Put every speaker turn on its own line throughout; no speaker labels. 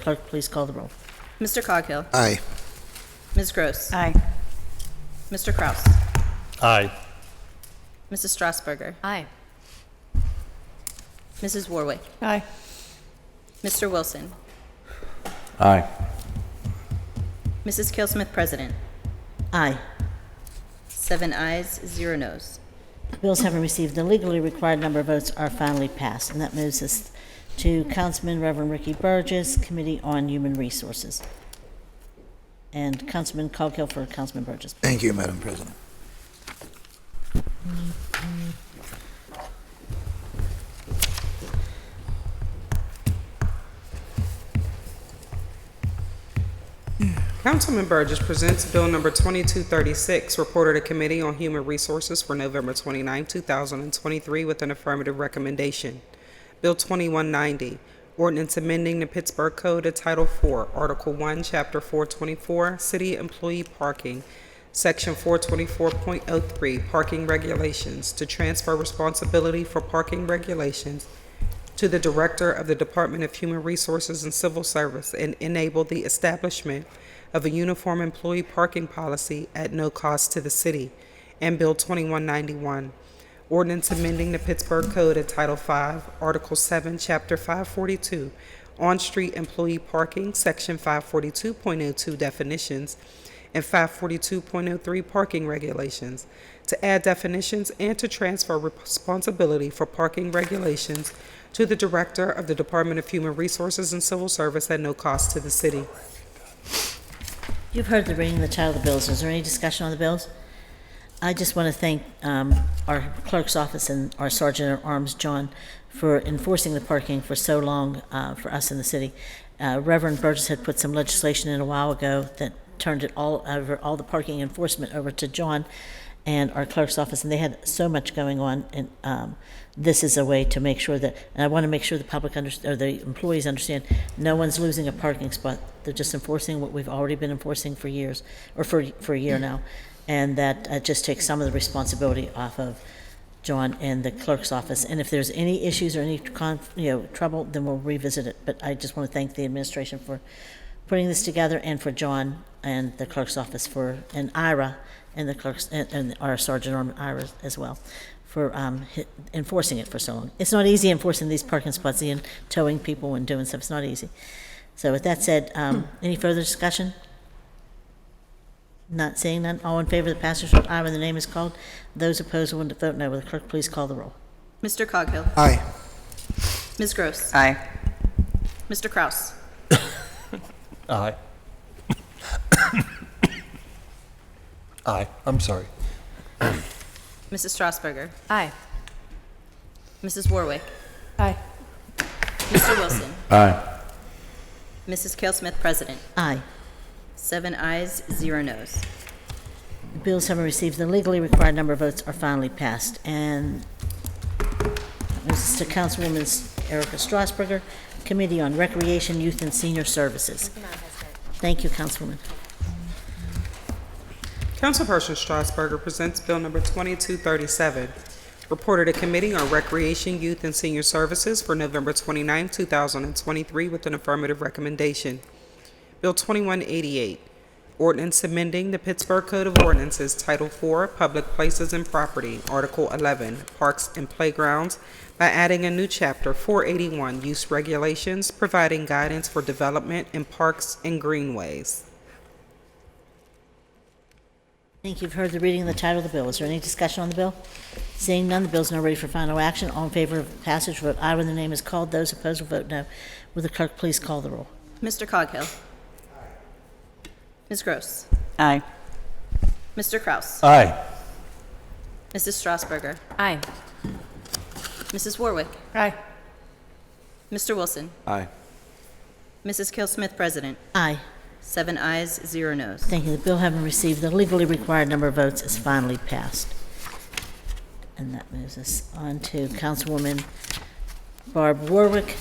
clerk please call the roll?
Mr. Coghill.
Aye.
Ms. Gross.
Aye.
Mr. Kraus.
Aye.
Mrs. Strasburger.
Aye.
Mrs. Warwick.
Aye.
Mr. Wilson.
Aye.
Mrs. Kelsmith, President.
Aye.
Seven ayes, zero nos.
Bills having received the legally required number of votes are finally passed, and that moves us to Councilman Reverend Ricky Burgess, Committee on Human Resources. And Councilman Coghill for Councilman Burgess.
Thank you, Madam President.
Councilman Burgess presents Bill Number 2236, reported to Committee on Human Resources for November 29, 2023, with an affirmative recommendation. Bill 2190, ordinance amending the Pittsburgh Code to Title IV, Article 1, Chapter 424, City Employee Parking, Section 424.03, Parking Regulations, to transfer responsibility for parking regulations to the Director of the Department of Human Resources and Civil Service and enable the establishment of a uniform employee parking policy at no cost to the city. And Bill 2191, ordinance amending the Pittsburgh Code at Title V, Article 7, Chapter 542, on-street employee parking, Section 542.02 definitions, and 542.03 parking regulations, to add definitions and to transfer responsibility for parking regulations to the Director of the Department of Human Resources and Civil Service at no cost to the city.
You've heard the reading of the title of the bills. Is there any discussion on the bills? I just want to thank um, our clerk's office and our sergeant at arms, John, for enforcing the parking for so long uh, for us in the city. Uh, Reverend Burgess had put some legislation in a while ago that turned it all over, all the parking enforcement over to John and our clerk's office, and they had so much going on. And um, this is a way to make sure that, and I want to make sure the public under, or the employees understand, no one's losing a parking spot. They're just enforcing what we've already been enforcing for years, or for for a year now, and that uh, just takes some of the responsibility off of John and the clerk's office. And if there's any issues or any conf, you know trouble, then we'll revisit it. But I just want to thank the administration for putting this together and for John and the clerk's office for, and Ira and the clerk's, and, and our sergeant arm Ira as well for um, hi- enforcing it for so long. It's not easy enforcing these parking spots and towing people and doing stuff. It's not easy. So with that said, um, any further discussion? Not seeing none. All in favor of the passage of aye when the name is called. Those opposed will vote no. Will the clerk please call the roll?
Mr. Coghill.
Aye.
Ms. Gross.
Aye.
Mr. Kraus.
Aye. Aye, I'm sorry.
Mrs. Strasburger.
Aye.
Mrs. Warwick.
Aye.
Mr. Wilson.
Aye.
Mrs. Kelsmith, President.
Aye.
Seven ayes, zero nos.
The Bills having received the legally required number of votes are finally passed. And that moves us to Councilwoman Erica Strasburger, Committee on Recreation, Youth, and Senior Services. Thank you, Councilwoman.
Councilperson Strasburger presents Bill Number 2237, reported to Committee on Recreation, Youth, and Senior Services for November 29, 2023, with an affirmative recommendation. Bill 2188, ordinance amending the Pittsburgh Code of Ordinances, Title IV, Public Places and Property, Article 11, Parks and Playgrounds, by adding a new chapter, 481, Use Regulations, providing guidance for development in parks and greenways.
I think you've heard the reading of the title of the bill. Is there any discussion on the bill? Seeing none, the bill is now ready for final action. All in favor of passage, vote aye when the name is called. Those opposed will vote no. Will the clerk please call the roll?
Mr. Coghill. Ms. Gross.
Aye.
Mr. Kraus.
Aye.
Mrs. Strasburger.
Aye.
Mrs. Warwick.
Aye.
Mr. Wilson.
Aye.
Mrs. Kelsmith, President.
Aye.
Seven ayes, zero nos.
Thank you. The bill having received the legally required number of votes is finally passed. And that moves us on to Councilwoman Barb Warwick,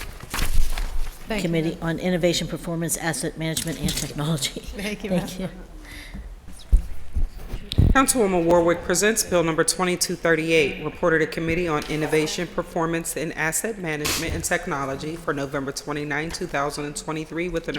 Committee on Innovation, Performance, Asset Management, and Technology. Thank you. Thank you.
Councilwoman Warwick presents Bill Number 2238, reported to Committee on Innovation, Performance, and Asset Management and Technology for November 29, 2023, with an